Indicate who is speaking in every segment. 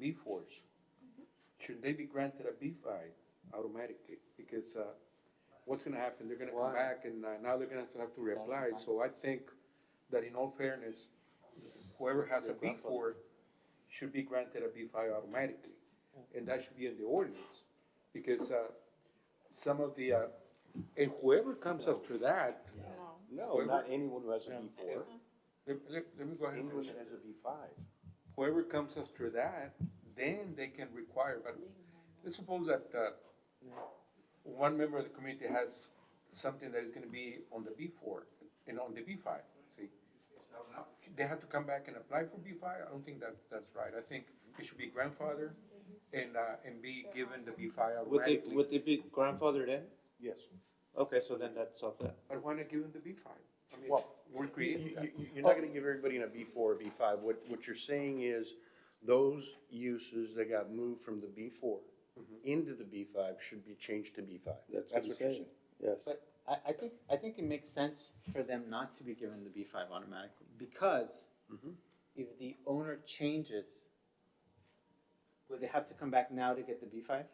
Speaker 1: B fours, should they be granted a B five automatically? Because, uh, what's gonna happen? They're gonna
Speaker 2: Why?
Speaker 1: come back and uh, now they're gonna have to- have to reapply. So I think that in all fairness, whoever has a B four should be granted a B five automatically. And that should be in the ordinance, because, uh, some of the, uh, and whoever comes after that,
Speaker 2: No, not anyone who has a B four,
Speaker 1: let, let, let me go ahead and
Speaker 2: anyone
Speaker 1: finish.
Speaker 2: that has a B five.
Speaker 1: whoever comes after that, then they can require, but let's suppose that, uh, one member of the community has something that is gonna be on the B four and on the B five, see? They have to come back and apply for B five, I don't think that, that's right, I think it should be grandfathered and, uh, and be given the B five
Speaker 3: Would they,
Speaker 1: automatically.
Speaker 3: would they be grandfathered in?
Speaker 2: Yes.
Speaker 3: Okay, so then that's up there.
Speaker 1: But why not give them the B five? I mean,
Speaker 2: Well,
Speaker 1: we're creating
Speaker 2: You,
Speaker 1: that.
Speaker 2: you, you're not gonna give everybody in a B four or B five. What, what you're saying is those uses that got moved from the B four
Speaker 3: Mm-hmm.
Speaker 2: into the B five should be changed to B five. you're
Speaker 4: Yes.
Speaker 5: But I, I think, I think it makes sense for them not to be given the B five automatically, because if the owner changes, would they have to come back now to get the B five?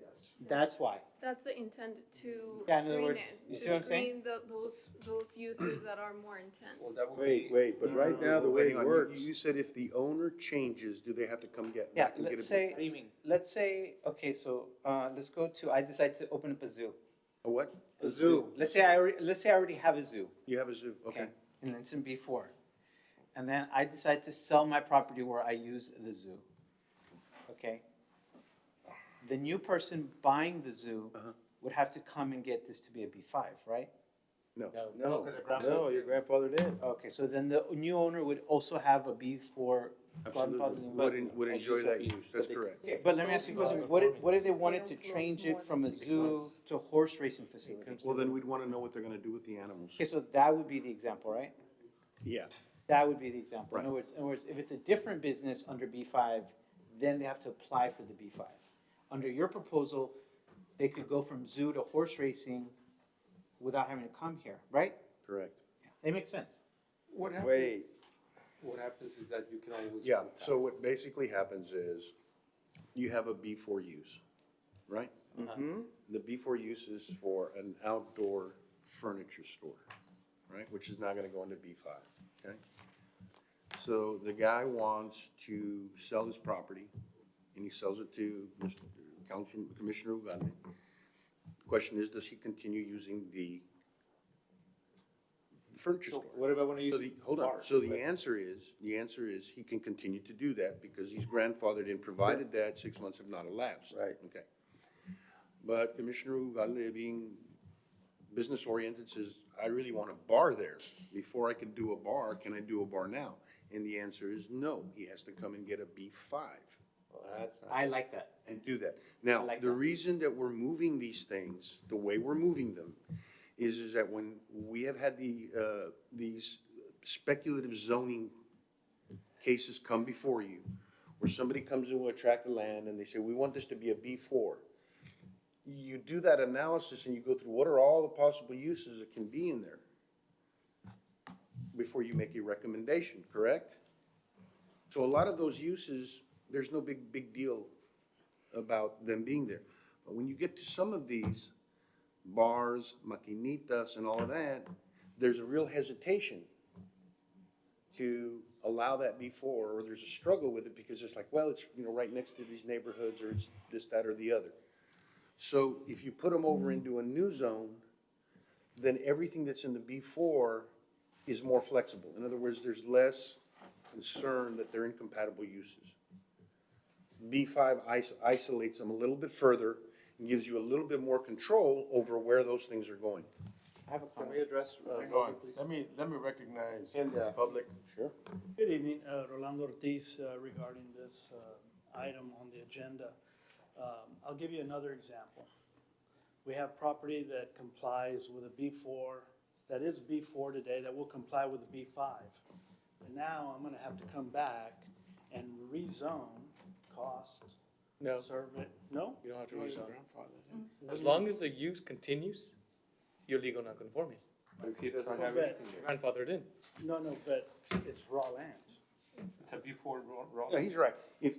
Speaker 5: Yes. That's why.
Speaker 6: That's intended to
Speaker 5: Yeah, in other
Speaker 6: screen
Speaker 5: words,
Speaker 6: it,
Speaker 5: you
Speaker 6: to
Speaker 5: see what I'm saying?
Speaker 6: screen the, those, those uses that are
Speaker 1: Well,
Speaker 6: more intense.
Speaker 1: that would
Speaker 4: Wait,
Speaker 1: be-
Speaker 4: wait, but
Speaker 2: No,
Speaker 4: right
Speaker 2: no,
Speaker 4: now,
Speaker 2: no,
Speaker 4: the
Speaker 2: but
Speaker 4: way
Speaker 2: Mm-hmm. hang
Speaker 4: it
Speaker 2: on. You-
Speaker 4: works,
Speaker 2: You said if the owner changes, do they have to come get?
Speaker 5: Yeah,
Speaker 2: back and get
Speaker 5: let's
Speaker 2: a-
Speaker 5: say,
Speaker 3: What do you mean?
Speaker 5: let's say, okay, so, uh, let's go to, I decide to open up a zoo.
Speaker 2: A what?
Speaker 5: A zoo. Let's say I, alre- let's say I already have a zoo.
Speaker 2: You have a zoo, okay.
Speaker 5: And it's in B four. And then I decide to sell my property where I use the zoo. Okay? The new person buying the zoo
Speaker 2: Uh-huh.
Speaker 5: would have to come and get this to be a B five, right?
Speaker 2: No.
Speaker 4: no, no, your grandfather did.
Speaker 5: Okay, so then the new owner would also have a B four.
Speaker 2: Absolutely. Would, en- would enjoy that use, that's correct.
Speaker 5: Okay, but let me ask you a question, what if, what if they wanted to change it from a zoo to a horse racing facility?
Speaker 2: Well, then we'd wanna know what they're gonna do with the animals.
Speaker 5: Okay, so that would be the example, right?
Speaker 2: Yeah.
Speaker 5: That would be the example. In
Speaker 2: Right.
Speaker 5: other words, in other words, if it's a different business under B five, then they have to apply for the B five. Under your proposal, they could go from zoo to horse racing without having to come here, right?
Speaker 2: Correct.
Speaker 5: It makes sense.
Speaker 1: What happens,
Speaker 4: Wait,
Speaker 1: what happens is that you can always.
Speaker 2: Yeah, so what basically happens is you have a B four use, right? The B four use is for an outdoor furniture store, right, which is not gonna go into B five, okay? So the guy wants to sell his property and he sells it to Mr. Council, Commissioner Ugande. Question is, does he continue using the furniture store?
Speaker 3: What if I wanna use?
Speaker 2: So the, hold on,
Speaker 3: bar?
Speaker 2: so the answer is, the answer is he can continue to do that because he's grandfathered in, provided that six months have not elapsed.
Speaker 4: Right.
Speaker 2: Okay. But Commissioner Ugalde, being business oriented, says, I really want a bar there. Before I could do a bar, can I do a bar now? And the answer is no, he has to come and get a B five
Speaker 3: Well, that's not-
Speaker 5: I like that.
Speaker 2: and do that. Now,
Speaker 5: like
Speaker 2: the
Speaker 5: that.
Speaker 2: reason that we're moving these things, the way we're moving them, is, is that when we have had the, uh, these speculative zoning cases come before you, where somebody comes in with a tract of land and they say, we want this to be a B four. You do that analysis and you go through what are all the possible uses that can be in there before you make a recommendation, correct? So a lot of those uses, there's no big, big deal about them being there. But when you get to some of these bars, maquinitas and all that, there's a real hesitation to allow that before, or there's a struggle with it because it's like, well, it's, you know, right next to these neighborhoods or it's this, that, or the other. So if you put them over into a new zone, then everything that's in the B four is more flexible. In other words, there's less concern that they're incompatible uses. B five isolates them a little bit further and gives you a little bit more control over where those things are going.
Speaker 5: I have a
Speaker 3: Can
Speaker 5: comment.
Speaker 3: we address, uh,
Speaker 7: Hang on, let me, let me recognize
Speaker 4: uh,
Speaker 7: the public.
Speaker 2: Sure.
Speaker 8: Good evening, uh, Rolando Ortiz uh, regarding this uh, item on the agenda. Um, I'll give you another example. We have property that complies with a B4, that is B4 today, that will comply with a B5. And now I'm going to have to come back and rezone cost,
Speaker 9: No,
Speaker 8: serve it, no?
Speaker 9: you don't have to rezone. As long as the use continues, you're legal non-conforming.
Speaker 1: But if he doesn't
Speaker 8: Go
Speaker 1: have
Speaker 8: back.
Speaker 1: anything there.
Speaker 9: Grandfathered in.
Speaker 8: No, no, but it's raw land.
Speaker 1: It's a before raw, raw.
Speaker 2: Yeah, he's right. If,